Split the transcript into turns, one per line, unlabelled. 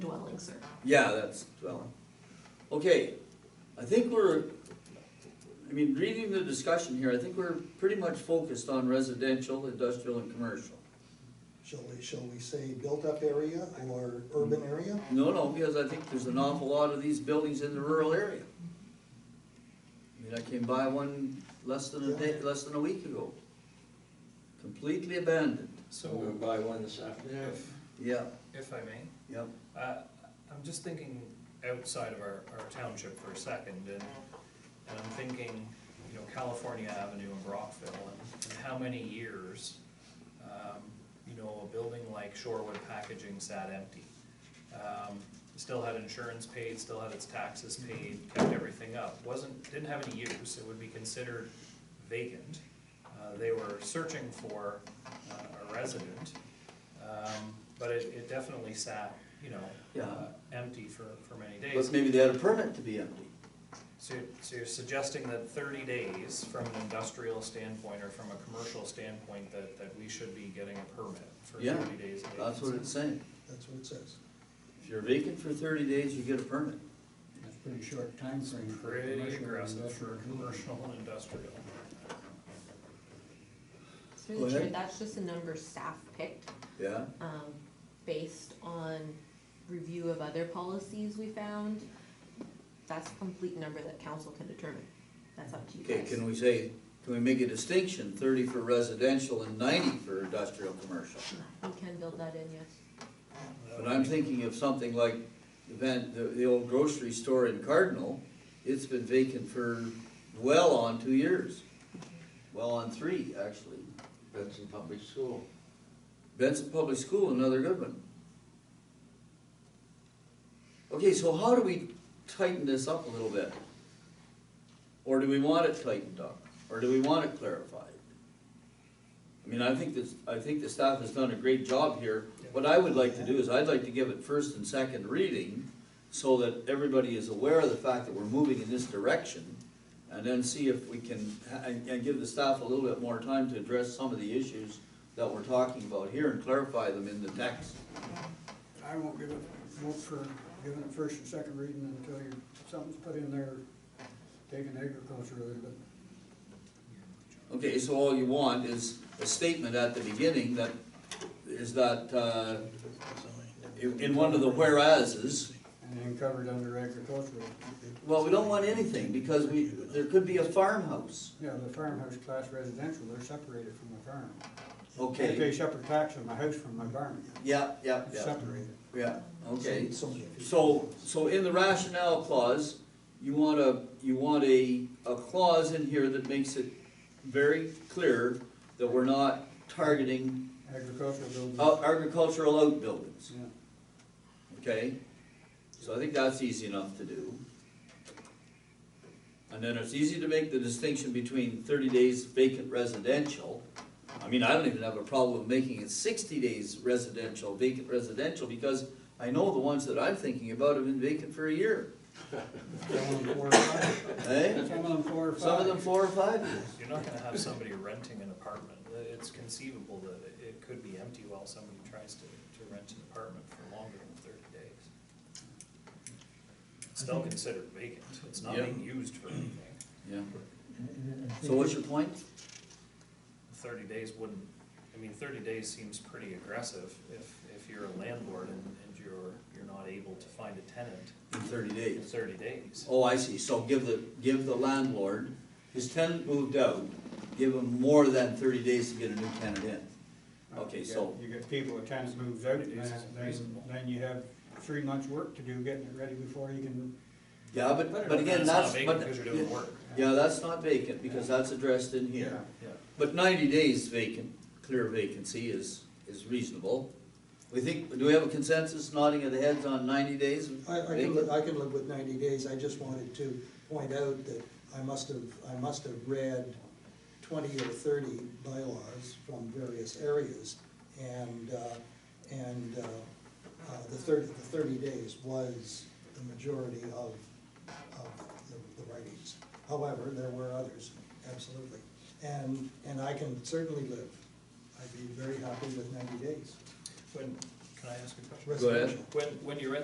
closer.
Yeah, that's dwelling. Okay, I think we're, I mean, reading the discussion here, I think we're pretty much focused on residential, industrial, and commercial.
Shall we, shall we say built-up area or urban area?
No, no, because I think there's an awful lot of these buildings in the rural area. I mean, I came by one less than a day, less than a week ago. Completely abandoned.
I'm gonna
So,
buy one this afternoon.
if,
Yeah,
if I may,
yeah.
uh, I'm just thinking outside of our, our township for a second, and, and I'm thinking, you know, California Avenue in Brockville, and, and how many years, um, you know, a building like Shorewood Packaging sat empty. Um, still had insurance paid, still had its taxes paid, kept everything up, wasn't, didn't have any use, it would be considered vacant. Uh, they were searching for, uh, a resident, um, but it, it definitely sat, you know,
Yeah.
uh, empty for, for many days.
But maybe they had a permit to be empty.
So, you're- so you're suggesting that thirty days from an industrial standpoint or from a commercial standpoint that, that we should be getting a permit for
Yeah,
thirty days? of
That's what
vacancy?
it's saying.
That's what it says.
If you're vacant for thirty days, you get a permit.
That's pretty short timeframe. for a
Pretty
commercial and
aggressive for
industrial building.
commercial and industrial.
Go
Through the chair,
ahead.
that's just a number staff picked,
Yeah?
um, based on review of other policies we found. That's a complete number that council can determine. That's up to you
Okay,
guys.
can we say, can we make a distinction, thirty for residential and ninety for industrial commercial?
We can build that in, yes.
But I'm thinking of something like the van, the, the old grocery store in Cardinal, it's been vacant for well on two years. Well on three, actually.
Benson Public School.
Benson Public School, another good one. Okay, so how do we tighten this up a little bit? Or do we want it tightened up? Or do we want it clarified? I mean, I think this, I think the staff has done a great job here. What I would like to do is I'd like to give it first and second reading so that everybody is aware of the fact that we're moving in this direction. And then see if we can, and, and give the staff a little bit more time to address some of the issues that we're talking about here and clarify them in the text.
I won't give it, vote for giving it first and second reading until you, something's put in there, taking agriculture out of it.
Okay, so all you want is a statement at the beginning that, is that, uh, in, in one of the whereases,
And then covered under agricultural.
well, we don't want anything, because we, there could be a farmhouse,
Yeah, the farmhouse class residential, they're separated from the farm. I pay
okay?
separate tax on my house from my barn.
Yeah, yeah,
It's
yeah,
separated.
yeah, okay.
So- many
So,
people.
so in the rationale clause, you want a, you want a, a clause in here that makes it very clear that we're not targeting
Agricultural buildings.
out- agricultural outbuildings,
Yeah.
okay? So I think that's easy enough to do. And then it's easy to make the distinction between thirty days vacant residential. I mean, I don't even have a problem making it sixty days residential, vacant residential, because I know the ones that I'm thinking about have been vacant for a year,
Some of them four or five.
eh?
Some of them four or five.
Some of them four or five years.
You're not gonna have somebody renting an apartment. It's conceivable that it- it could be empty while somebody tries to, to rent an apartment for longer than thirty days. It's Still considered vacant. It's not
Yeah.
being used for anything.
Yeah. So what's your point?
Thirty days wouldn't, I mean, thirty days seems pretty aggressive if, if you're a landlord and, and you're, you're not able to find a tenant
In thirty
in
days?
thirty days.
Oh, I see, so give the, give the landlord, his tenant moved out, give him more than thirty days to get a new tenant in. Okay,
Uh, You get-
so-
You get people, a tenant moves out, and
It's
then,
reasonable.
then- then you have three months' work to do, getting it ready before you can,
Yeah, but, but again,
It's not
that's,
vacant
but,
Because you're doing work.
yeah, that's not vacant, because that's addressed in here.
Yeah.
But ninety days vacant, clear vacancy is, is reasonable. We think, do we have a consensus nodding of the heads on ninety days?
I, I can,
vacant?
li- I can live with ninety days, I just wanted to point out that I must have, I must have read twenty or thirty bylaws from various areas, and, uh, and, uh, uh, the thirty, the thirty days was the majority of, of the- the writings. However, there were others, absolutely, and, and I can certainly live, I'd be very happy with ninety days,
When, can I ask a question?
Go ahead.
residential.
When, when you rent